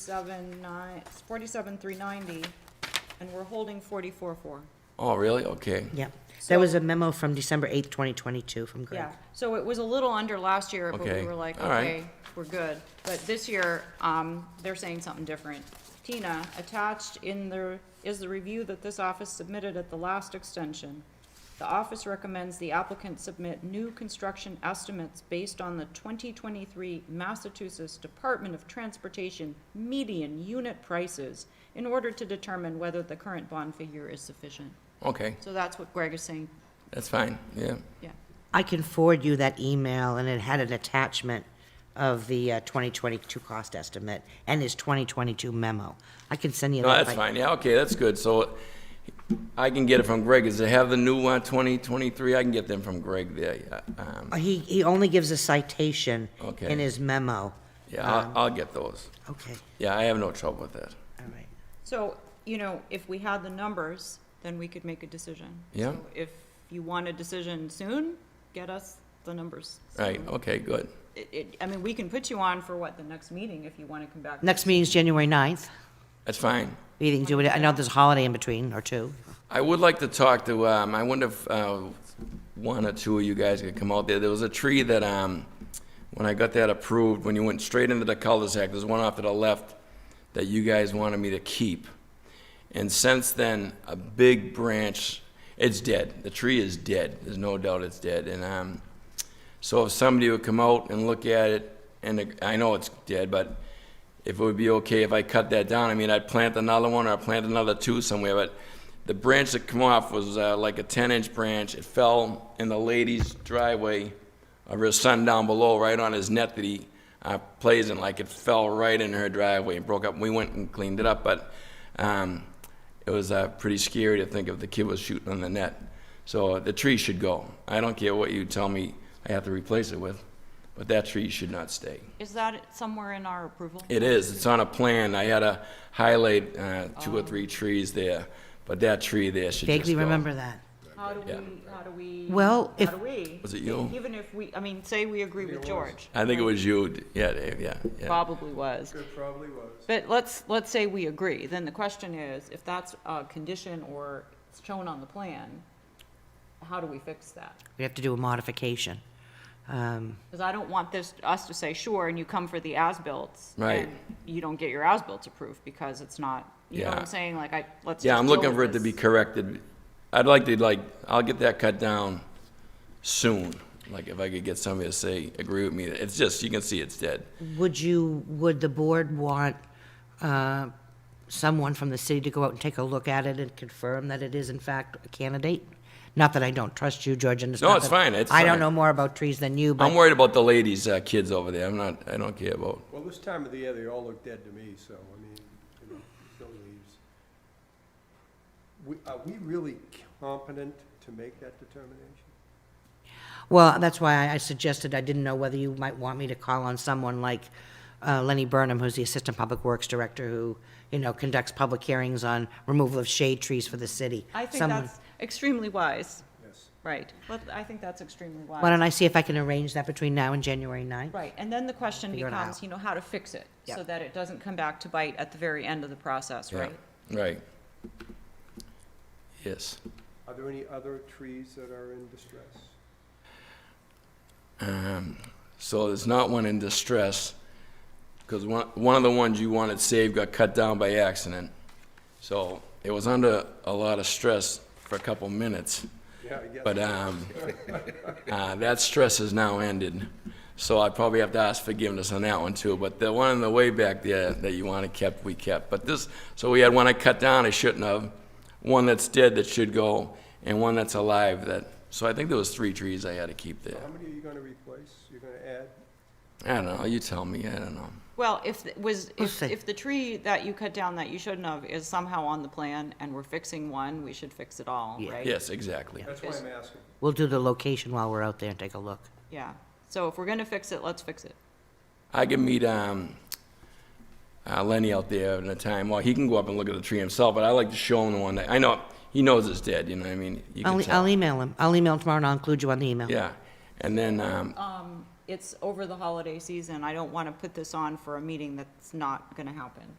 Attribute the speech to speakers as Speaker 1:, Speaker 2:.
Speaker 1: forty-seven nine, forty-seven three ninety, and we're holding forty-four four.
Speaker 2: Oh, really? Okay.
Speaker 3: Yep. There
Speaker 1: So-
Speaker 3: was a memo from December 8th, 2022 from Greg.
Speaker 1: Yeah, so it was a little under last year, but we
Speaker 2: Okay,
Speaker 1: were like,
Speaker 2: all right.
Speaker 1: okay, we're good. But this year, um, they're saying something different. Tina, attached in the, is the review that this office submitted at the last extension. The office recommends the applicant submit new construction estimates based on the twenty twenty-three Massachusetts Department of Transportation median unit prices in order to determine whether the current bond figure is sufficient.
Speaker 2: Okay.
Speaker 1: So that's what Greg is saying,
Speaker 2: That's fine. Yeah.
Speaker 1: yeah.
Speaker 3: I can forward you that email, and it had an attachment of the uh, 2022 cost estimate and his 2022 memo. I can send you
Speaker 2: No,
Speaker 3: that.
Speaker 2: that's
Speaker 3: by-
Speaker 2: fine. Yeah, okay, that's good. So I can get it from Greg. Does it have the new one, 2023? I can get them from Greg there. yeah, Um,
Speaker 3: Oh, He, he only gives a citation
Speaker 2: Okay.
Speaker 3: in his memo.
Speaker 2: yeah, I'll, I'll get those.
Speaker 3: Okay,
Speaker 2: Yeah, I have no trouble with that.
Speaker 3: all right.
Speaker 1: So, you know, if we had the numbers, then we could make a decision.
Speaker 2: Yeah.
Speaker 1: So If you want a decision soon, get us the numbers.
Speaker 2: Right, okay, good.
Speaker 1: It, it, I mean, we can put you on for what, the next meeting if you want to come back.
Speaker 3: Next meeting's January 9th.
Speaker 2: That's fine.
Speaker 3: We can do it, I know there's a holiday in between, or two.
Speaker 2: I would like to talk to, um, I wonder if, uh, one or two of you guys could come out there. There was a tree that, um, when I got that approved, when you went straight into the cul-de-sac, there's one off to the left that you guys wanted me to keep. And since then, a big branch, it's dead. The tree is dead. There's no doubt it's dead. And, um, so if somebody would come out and look at it, and it- I know it's dead, but if it would be okay if I cut that down, I mean, I'd plant another one or I'd plant another two somewhere, but the branch that come off was uh, like a ten-inch branch. It fell in the lady's driveway of her son down below, right on his net that he uh, plays in, like it fell right in her driveway and broke up. We went and cleaned it up, but um, it was uh, pretty scary to think if the kid was shooting on the net. So uh, the tree should go. I don't care what you tell me I have to replace it with, but that tree should not stay.
Speaker 1: Is that somewhere in our approval?
Speaker 2: It is, it's on a plan. I had to highlight uh, two or three trees there, but that tree there should just go.
Speaker 3: Oh. Vaguely remember that.
Speaker 1: How do we,
Speaker 2: Yeah.
Speaker 1: how do we?
Speaker 3: Well, if-
Speaker 1: How do we?
Speaker 2: Was it you?
Speaker 1: Even if we, I mean, say we agree with George.
Speaker 2: I think it was you, yeah, Dave, yeah, yeah.
Speaker 1: Probably was.
Speaker 4: It probably was.
Speaker 1: But let's, let's say we agree, then the question is, if that's a condition or it's shown on the plan, how do we fix that?
Speaker 3: We have to do a modification. Um,
Speaker 1: Because I don't want this, us to say, sure, and you come for the as-bills.
Speaker 2: Right.
Speaker 1: and You don't get your as-bills approved because it's not, you know what
Speaker 2: Yeah.
Speaker 1: I'm saying? Like, I, let's just
Speaker 2: Yeah, I'm
Speaker 1: deal
Speaker 2: looking
Speaker 1: with
Speaker 2: for it to be
Speaker 1: this.
Speaker 2: corrected. I'd like to, like, I'll get that cut down soon. Like, if I could get somebody to say, agree with me, it's just, you can see it's dead.
Speaker 3: Would you, would the board want uh, someone from the city to go out and take a look at it and confirm that it is in fact a candidate? Not that I don't trust you, George, and it's
Speaker 2: No,
Speaker 3: not
Speaker 2: it's
Speaker 3: that-
Speaker 2: fine, it's
Speaker 3: I don't
Speaker 2: fine.
Speaker 3: know more about trees than you,
Speaker 2: I'm
Speaker 3: but,
Speaker 2: worried about the ladies' uh, kids over there. I'm not, I don't care about,
Speaker 4: Well, this time of the year, they all look dead to me, so, I mean, you know, no leaves. We, are we really competent to make that determination?
Speaker 3: well, that's why I- I suggested, I didn't know whether you might want me to call on someone like uh, Lenny Burnham, who's the Assistant Public Works Director, who, you know, conducts public hearings on removal of shade trees for the city.
Speaker 1: I think
Speaker 3: Someone-
Speaker 1: that's extremely wise,
Speaker 4: Yes.
Speaker 1: right. But I think that's extremely wise.
Speaker 3: Why don't I see if I can arrange that between now and January 9th?
Speaker 1: Right, and then the question
Speaker 3: Figure it
Speaker 1: becomes,
Speaker 3: out.
Speaker 1: you know, how to fix it, so
Speaker 3: Yep.
Speaker 1: that it doesn't come back to bite at the very end of the process,
Speaker 2: yeah,
Speaker 1: right?
Speaker 2: right. Yes.
Speaker 4: Are there any other trees that are in distress?
Speaker 2: Um, So there's not one in distress, because one, one of the ones you wanted saved got cut down by accident. So it was under a lot of stress for a couple minutes.
Speaker 4: Yeah, I guess.
Speaker 2: But um, uh, that stress has now ended, so I probably have to ask forgiveness on that one too. But the one on the way back there that you wanted kept, we kept. But this, so we had one I cut down I shouldn't have, one that's dead that should go, and one that's alive that. So I think there was three trees I had to keep there.
Speaker 4: How many are you gonna replace? You're gonna add?
Speaker 2: I don't know. You tell me. I don't know.
Speaker 1: Well, if, it was,
Speaker 3: We'll
Speaker 1: if,
Speaker 3: see.
Speaker 1: if the tree that you cut down that you shouldn't have is somehow on the plan, and we're fixing one, we should fix it all,
Speaker 3: Yeah.
Speaker 1: right?
Speaker 2: Yes, exactly.
Speaker 4: That's why
Speaker 1: Is-
Speaker 4: I'm asking.
Speaker 3: We'll do the location while we're out there and take a look.
Speaker 1: Yeah, so if we're gonna fix it, let's fix it.
Speaker 2: I can meet um, uh, Lenny out there in a time. Well, he can go up and look at the tree himself, but I like to show him the one that I know he knows it's dead. You know what I mean? You can
Speaker 3: I'll,
Speaker 2: tell.
Speaker 3: I'll email him. I'll email him tomorrow and I'll include you on the email.
Speaker 2: Yeah, and then um,
Speaker 1: Um, it's over the holiday season, I don't wanna put this on for a meeting that's not gonna happen.